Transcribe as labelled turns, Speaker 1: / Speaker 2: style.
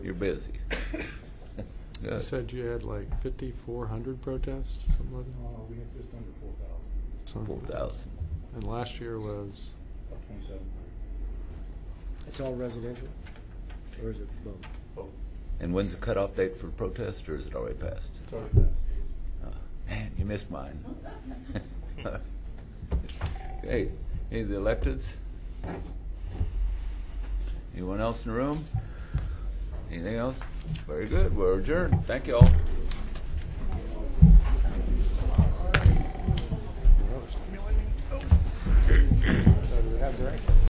Speaker 1: You're busy.
Speaker 2: You
Speaker 1: Yes.
Speaker 2: said you had like 5,400 protests, something like that?
Speaker 3: Uh, we have just under four thousand,
Speaker 2: Something
Speaker 1: Four
Speaker 2: like that.
Speaker 1: thousand.
Speaker 2: And last year was,
Speaker 3: about twenty-seven
Speaker 4: It's all residential, or is it both?
Speaker 3: Both.
Speaker 1: And when's the cutoff date for protest, or is it already passed?
Speaker 3: Sorry, that's-
Speaker 1: Oh, Man, you missed mine. Okay, any of the electeds? Anyone else in the room? Anything else? Very good, we're adjourned. Thank you all.
Speaker 4: So do we have direction?